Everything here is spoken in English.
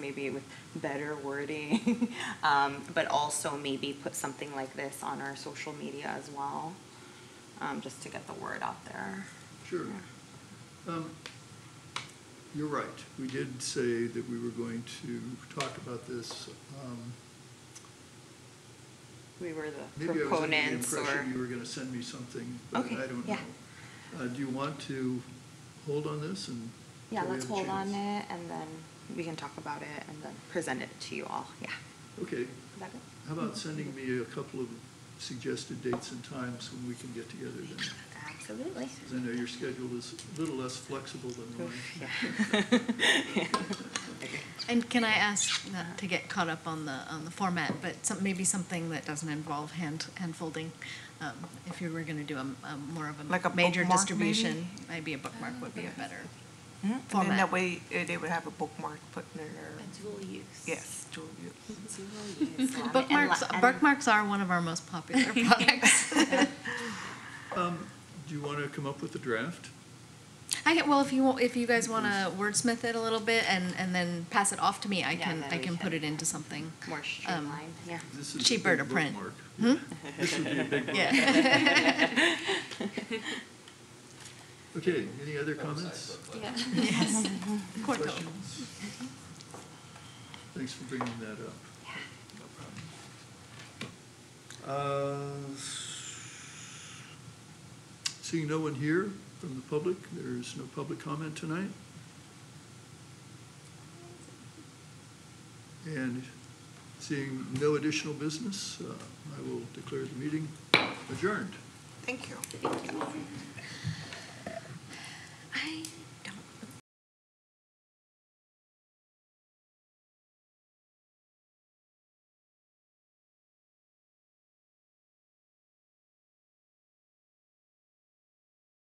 maybe with better wording, um, but also maybe put something like this on our social media as well, um, just to get the word out there. Sure. Um, You're right. We did say that we were going to talk about this. um, We were the Maybe I was under the proponents or, impression you were going to send me something, but Okay, I don't know. yeah. Uh, Do you want to hold on this and? yeah, till we let's have a hold on chance? it and then we can talk about it and then present it to you all, yeah. Okay. Is that good? How about sending me a couple of suggested dates and times when we can get together then? Because Absolutely. I know your schedule is a little less flexible than mine. And can I ask, not to get caught up on the, on the format, but some, maybe something that doesn't involve hand, hand folding? um, If you were gonna do a, a more of Like a a major bookmark, distribution, maybe a bookmark would be a Yes. better. Hmm? And then format. that way, uh, they would have a bookmark put in there. dual use. Yes, dual use. Bookmarks, bookmarks are one of our most popular products. Um, Do you want to come up with a draft? I, get- well, if you, wa- if you guys wanna wordsmith it a little bit and, and then pass it off to me, I Yeah, can, then I we can put can it into something. More um, streamlined, yeah. This is a Cheaper big to print. bookmark. Yeah. This would be a big bookmark. Yeah. Okay, any other comments, Yeah. Yes. Corto. questions? Thanks for bringing that up. Uh, Seeing no one here from the public, there's no public comment tonight. And seeing no additional business, uh, I will declare the meeting adjourned. Thank you. I